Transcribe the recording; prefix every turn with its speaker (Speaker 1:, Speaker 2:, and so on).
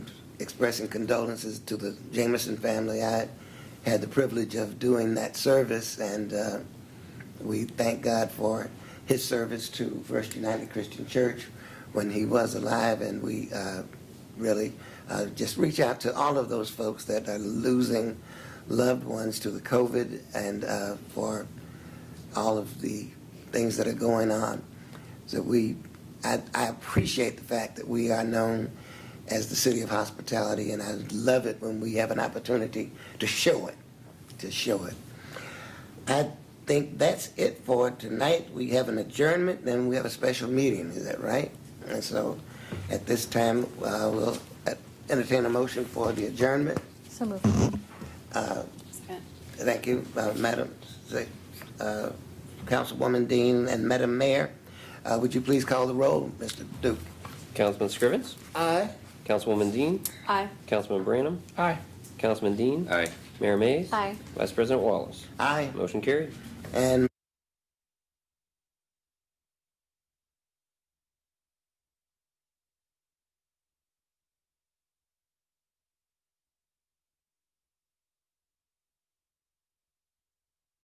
Speaker 1: expressing condolences to the Jameson family. I had the privilege of doing that service, and uh, we thank God for his service to First United Christian Church when he was alive, and we uh, really uh, just reach out to all of those folks that are losing loved ones to the COVID and uh, for all of the things that are going on. So we, I, I appreciate the fact that we are known as the city of hospitality, and I love it when we have an opportunity to show it, to show it. I think that's it for tonight. We have an adjournment, then we have a special meeting, is that right? And so, at this time, uh, we'll uh, entertain a motion for the adjournment. Uh,
Speaker 2: So moved.
Speaker 1: Thank you, uh, Madam, Se- uh, Councilwoman Dean and Madam Mayor. Uh, Would you please call the roll, Mr. Duke?
Speaker 3: Councilman Scrivens?
Speaker 1: Aye.
Speaker 3: Councilwoman Dean?
Speaker 2: Aye.
Speaker 3: Councilman Branham?
Speaker 4: Aye.
Speaker 3: Councilman Dean?
Speaker 4: Aye.
Speaker 3: Mayor Mays?
Speaker 2: Aye.
Speaker 3: Vice President Wallace?
Speaker 1: Aye,
Speaker 3: Motion carried.
Speaker 1: and